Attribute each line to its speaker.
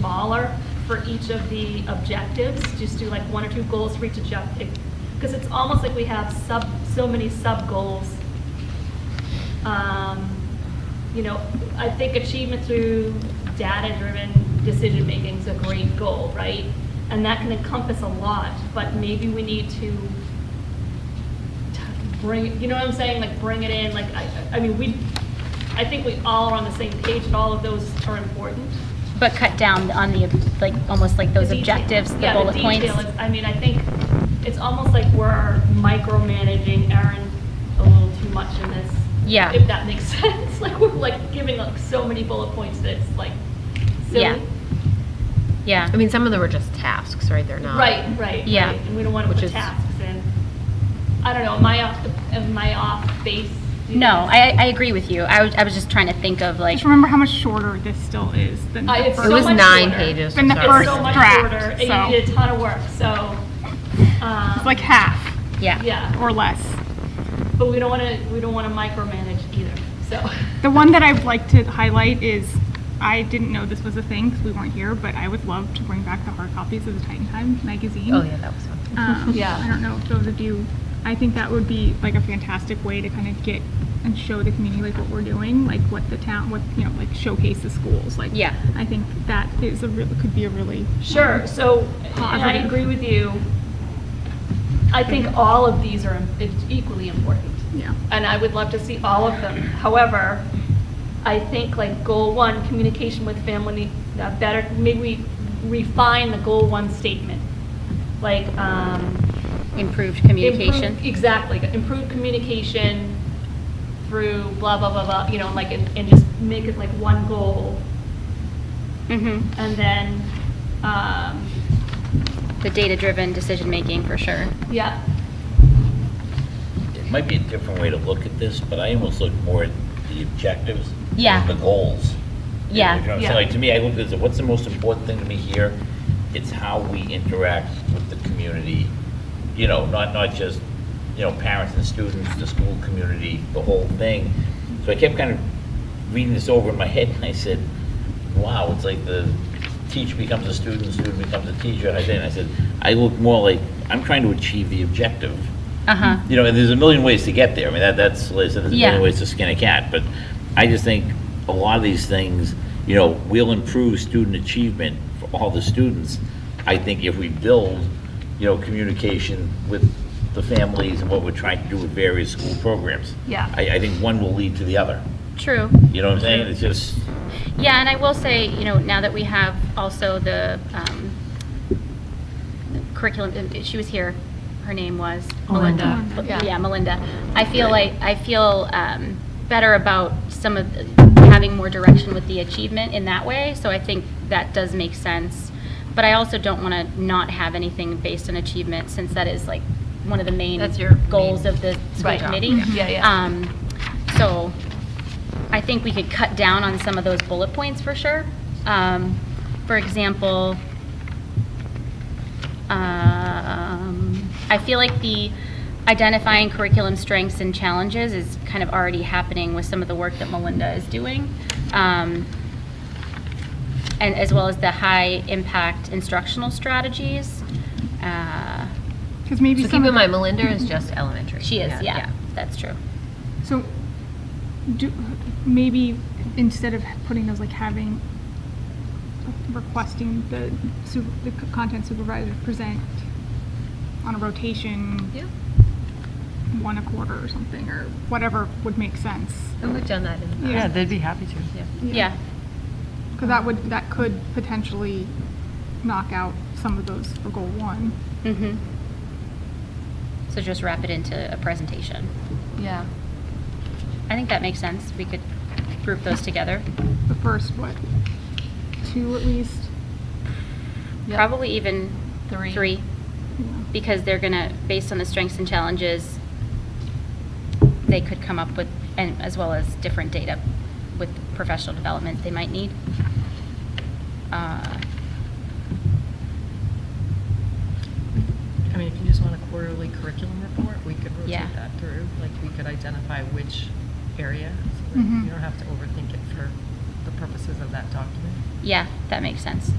Speaker 1: smaller for each of the objectives, just do like one or two goals for each objective, because it's almost like we have sub, so many sub-goals. Um, You know, I think achievement through data-driven decision-making is a great goal, right? And that can encompass a lot, but maybe we need to t- bring, you know what I'm saying, like, bring it in, like, I, I- I mean, we, I think we all are on the same page, and all of those are important.
Speaker 2: But cut down on the, like, almost like those
Speaker 1: The detail-
Speaker 2: objectives, the
Speaker 1: yeah,
Speaker 2: bullet points.
Speaker 1: detail is- I mean, I think it's almost like we're micromanaging Erin a little too much in this.
Speaker 2: Yeah.
Speaker 1: If that makes sense, like, we're like giving like so many bullet points that it's like
Speaker 2: Yeah.
Speaker 1: silly.
Speaker 2: Yeah,
Speaker 3: I mean, some of them are just tasks, right? They're not.
Speaker 1: Right, right.
Speaker 2: Yeah.
Speaker 1: right. And we don't want to
Speaker 3: Which
Speaker 1: put
Speaker 3: is-
Speaker 1: tasks in. I don't know, am I off, the- am I off base? Do you
Speaker 2: no,
Speaker 1: think?
Speaker 2: I, I agree with you. I was, I was just trying to think of like,
Speaker 4: Just remember how much shorter this still is than
Speaker 1: I-
Speaker 4: the
Speaker 1: it's
Speaker 3: It
Speaker 1: so
Speaker 3: was
Speaker 4: first.
Speaker 1: much
Speaker 3: nine
Speaker 1: shorter.
Speaker 3: pages.
Speaker 4: Than the
Speaker 3: sorry.
Speaker 1: It's
Speaker 4: first
Speaker 1: so much
Speaker 4: draft,
Speaker 1: shorter, and
Speaker 4: so-
Speaker 1: you did a ton of work, so. um,
Speaker 4: It's like half
Speaker 2: yeah.
Speaker 1: Yeah,
Speaker 4: or less.
Speaker 1: but we don't want to, we don't want to micromanage either, so.
Speaker 4: The one that I'd like to highlight is, I didn't know this was a thing because we weren't here, but I would love to bring back the hard copies of the Titan Times magazine.
Speaker 3: Oh, yeah, that was fun.
Speaker 4: Um,
Speaker 1: Yeah.
Speaker 4: I don't know if those of you, I think that would be like a fantastic way to kind of get and show the community like what we're doing, like what the town, what, you know, like showcase the schools, like.
Speaker 2: Yeah.
Speaker 4: I think that is a real, could be a really.
Speaker 1: Sure, so, and I
Speaker 4: Positive.
Speaker 1: agree with you. I think all of these are im- equally important,
Speaker 4: Yeah.
Speaker 1: and I would love to see all of them. However, I think like goal one, communication with family, uh, better, maybe we refine the goal one statement. Like, um,
Speaker 2: Improved
Speaker 1: Improve-
Speaker 2: communication.
Speaker 1: e- Exactly, improved communication through blah, blah, blah, blah, you know, like, and and just make it like one goal.
Speaker 2: hmm
Speaker 1: And then, um,
Speaker 2: The data-driven decision-making for sure.
Speaker 1: yeah,
Speaker 5: It might be a different way to look at this, but I almost look more at the objectives. than
Speaker 2: Yeah.
Speaker 5: The goals.
Speaker 2: Yeah.
Speaker 5: You know what I'm saying?
Speaker 1: Yeah.
Speaker 5: Like, to me, I look at it, what's the most important thing to me here? It's how we interact with the community, you know, not, not just, you know, parents and students, the school community, the whole thing. So I kept kind of reading this over in my head, and I said, wow, it's like the teacher becomes a student, student becomes a teacher. I then, I said, I look more like, I'm trying to achieve the objective
Speaker 2: Uh-huh.
Speaker 5: you know, and there's a million ways to get there. I mean, that, that's, like I said, there's a
Speaker 2: Yeah.
Speaker 5: million ways to skin a cat, but I just think a lot of these things, you know, will improve student achievement for all the students. I think if we build, you know, communication with the families and what we're trying to do with various school programs.
Speaker 1: Yeah.
Speaker 5: I, I think one will lead to the other.
Speaker 2: True.
Speaker 5: You know what I'm saying? It's just,
Speaker 2: Yeah, and I will say, you know, now that we have also the um, curriculum, uh, she was here, her name was?
Speaker 3: Melinda.
Speaker 1: Melinda, yeah.
Speaker 2: Yeah, Melinda. I feel like, I feel um, better about some of, the- having more direction with the achievement in that way, so I think that does make sense. But I also don't want to not have anything based on achievement, since that is like one of the main
Speaker 3: That's your
Speaker 2: goals
Speaker 3: main
Speaker 2: of the school
Speaker 1: Right.
Speaker 2: committee.
Speaker 1: Yeah, yeah.
Speaker 2: Um, So I think we could cut down on some of those bullet points for sure. Um, For example, um, I feel like the identifying curriculum strengths and challenges is kind of already happening with some of the work that Melinda is doing. Um, And as well as the high-impact instructional strategies. Uh,
Speaker 4: Because maybe
Speaker 3: So
Speaker 4: some
Speaker 3: keep
Speaker 4: of
Speaker 3: in
Speaker 4: the-
Speaker 3: mind, Melinda is just elementary.
Speaker 2: She is, yeah, that's true.
Speaker 4: So, do, maybe instead of putting those, like having, requesting the su- the c- content supervisor present on a rotation,
Speaker 3: Yeah,
Speaker 4: one a quarter or something, or whatever would make sense.
Speaker 3: and we've done that in the past.
Speaker 4: Yeah,
Speaker 6: they'd be happy to.
Speaker 2: Yeah.
Speaker 4: Because that would, that could potentially knock out some of those for goal one.
Speaker 2: Mm-hmm. So just wrap it into a presentation.
Speaker 1: Yeah.
Speaker 2: I think that makes sense. We could group those together.
Speaker 4: The first, what, two at least?
Speaker 2: Probably even
Speaker 1: Three.
Speaker 2: three,
Speaker 4: you know.
Speaker 2: because they're gonna, based on the strengths and challenges, they could come up with, and as well as different data with professional development they might need. Uh,
Speaker 6: I mean, if you just want a quarterly curriculum report, we could
Speaker 2: Yeah.
Speaker 6: rotate that through. Like, we could identify which area, so that
Speaker 4: Mhm.
Speaker 6: you don't have to overthink it for the purposes of that document.
Speaker 2: Yeah, that makes sense.